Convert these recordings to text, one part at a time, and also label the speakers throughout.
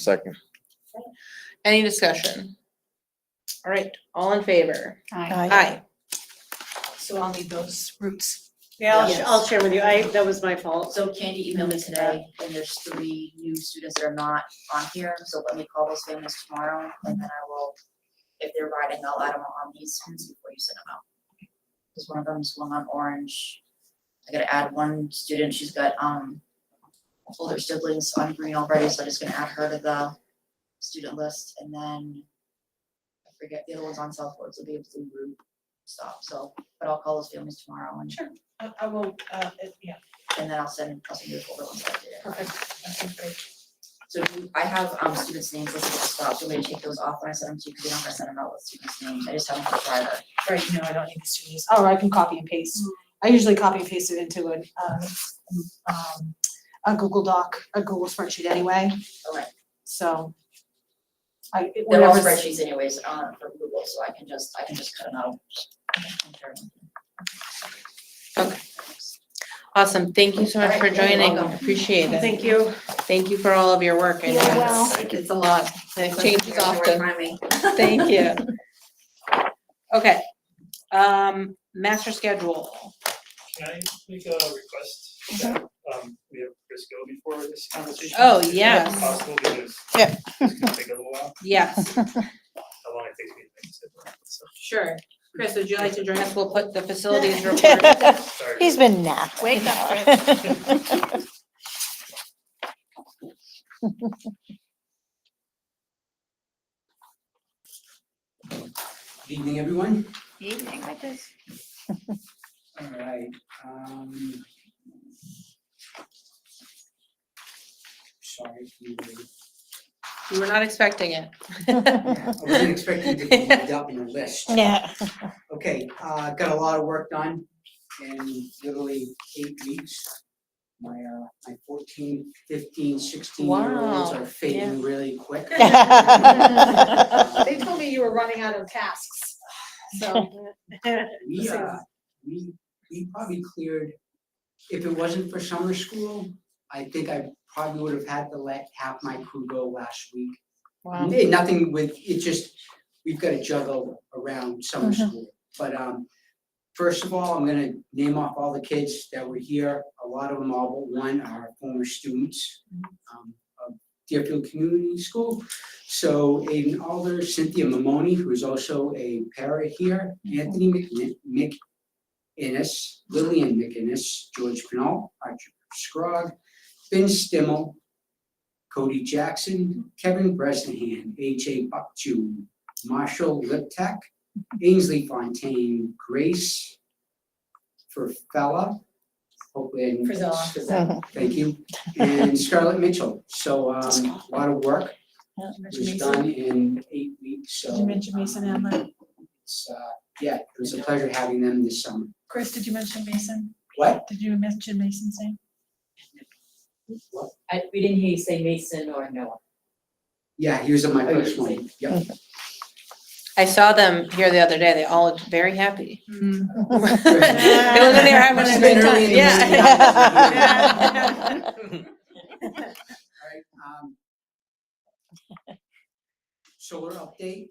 Speaker 1: Second.
Speaker 2: Any discussion? All right, all in favor?
Speaker 3: Aye.
Speaker 2: Aye.
Speaker 4: So I'll need those roots.
Speaker 5: Yeah, I'll,
Speaker 3: Yeah.
Speaker 5: I'll share with you. I, that was my fault.
Speaker 3: So Candy emailed me today, and there's three new students that are not on here, so let me call those families tomorrow, and then I will, if they're riding, I'll add them on these students before you send them out. Because one of them's going on orange, I gotta add one student, she's got, um, older siblings on green already, so I'm just gonna add her to the student list, and then I forget, the other one's on Southwood, so they have blue route stop, so, but I'll call those families tomorrow, and,
Speaker 4: I, I will, uh, it- yeah,
Speaker 3: and then I'll send, I'll send you the older ones that I did.
Speaker 4: perfect. Okay, great.
Speaker 3: So do you- I have um students' names listed at the stop, do you want me to take those off when I send them to you, because you don't have to send them out with students' names, I just have them for private.
Speaker 4: Right, no, I don't need the students. Oh, I can copy and paste.
Speaker 3: Mm.
Speaker 4: I usually copy and paste it into an, um, um, a Google Doc, a Google spreadsheet anyway,
Speaker 3: Okay,
Speaker 4: so. I, it-
Speaker 3: they're all
Speaker 4: whatever's-
Speaker 3: spreadsheets anyways, um for Google, so I can just, I can just cut them out. Compare them.
Speaker 2: Awesome, thank you so much for
Speaker 3: Alright, you're
Speaker 2: joining,
Speaker 3: welcome.
Speaker 2: appreciate it.
Speaker 5: Thank you.
Speaker 2: Thank you for all of your work, I know
Speaker 4: Yeah,
Speaker 2: it's,
Speaker 4: well-
Speaker 1: Thank you.
Speaker 2: it's a lot, and it changes often,
Speaker 3: Remind me.
Speaker 2: thank you. Okay, um, master schedule,
Speaker 6: Can I make a request that um we have Chris go before this conversation?
Speaker 2: Oh,
Speaker 6: Is that
Speaker 2: yes.
Speaker 6: Possible because.
Speaker 7: Yeah.
Speaker 6: It's gonna take a little while,
Speaker 2: yes,
Speaker 6: how long it takes me to make this, up, so
Speaker 2: sure. Chris, would you like to join us, we'll put the facilities report,
Speaker 6: sorry.
Speaker 7: He's been napping. Wake up.
Speaker 8: Good Evening, everyone.
Speaker 3: Evening,
Speaker 8: All right, um. Sorry. if you were-
Speaker 2: we were not expecting it.
Speaker 8: I wasn't expecting to be lined up in a list.
Speaker 7: Yeah.
Speaker 8: Okay, uh, got a lot of work done in literally eight weeks. My, uh, my 14, 15, 16 year olds
Speaker 2: Wow,
Speaker 8: are fading really quick. Uh,
Speaker 5: They told me you were running out of tasks, so.
Speaker 8: We,
Speaker 5: Same.
Speaker 8: uh, we, we probably cleared, if it wasn't for summer school, I think I probably would have had to let half my crew go last week.
Speaker 2: Wow.
Speaker 8: N- Nothing with, it just, we've gotta juggle around summer school, but, um, first of all, I'm gonna name off all the kids that were here, a lot of them, all but one are former students, um, of Deerfield Community School. So Aiden Alder, Cynthia Mamoni, who is also a para here, Anthony McNi- McInnes, Lillian McInnes, George Pennell, Archie Scrog, Ben Stimmel, Cody Jackson, Kevin Bresnahan, AJ Buckju, Marshall Liptek, Ainsley Fontaine, Grace Furfella, hopefully I didn't.
Speaker 3: Frizella.
Speaker 8: Frizella, Thank you, and Scarlett Mitchell. So um, a lot of work was done in eight weeks, so.
Speaker 4: Did you mention Mason
Speaker 8: um,
Speaker 4: Hamlin?
Speaker 8: It's, uh, yeah, it was a pleasure having them this summer.
Speaker 4: Chris, did you mention Mason?
Speaker 8: What?
Speaker 4: Did you mention Mason's name?
Speaker 9: I, we didn't hear you say Mason or Noah.
Speaker 8: Yeah, he was on my first one, yep.
Speaker 2: I saw them here the other day, they all looked very happy. They looked like
Speaker 8: They
Speaker 2: they were having a good time, yeah.
Speaker 8: Alright, um. Solar update,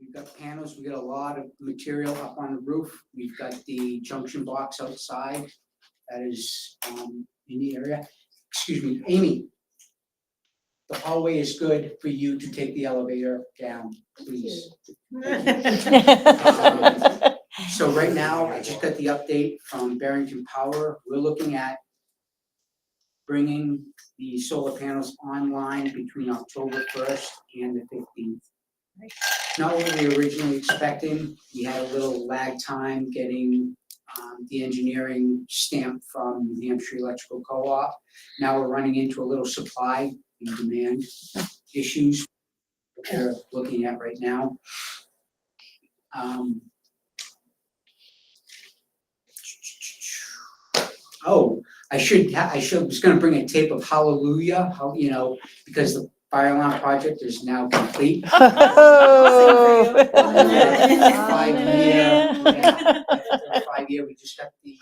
Speaker 8: we've got panels, we've got a lot of material up on the roof, we've got the junction box outside. That is, um, in the area, excuse me, Amy. The hallway is good for you to take the elevator down, please. So right now, I just got the update from Barrington Power, we're looking at bringing the solar panels online between October first and the fifteenth. Not what we were originally expecting, we had a little lag time getting um, the engineering stamp from New Hampshire Electrical Co-op. Now we're running into a little supply and demand issues that we're looking at right now. Um, Oh, I should, ha- I should, was gonna bring a tape of Hallelujah, how, you know, because the fire alarm project is now complete. Five year,
Speaker 7: Hallelujah.
Speaker 8: after five year, we just got the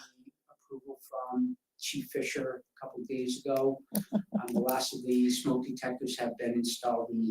Speaker 8: approval from Chief Fisher a couple days ago. Um, The last of the smoke detectors have been installed in the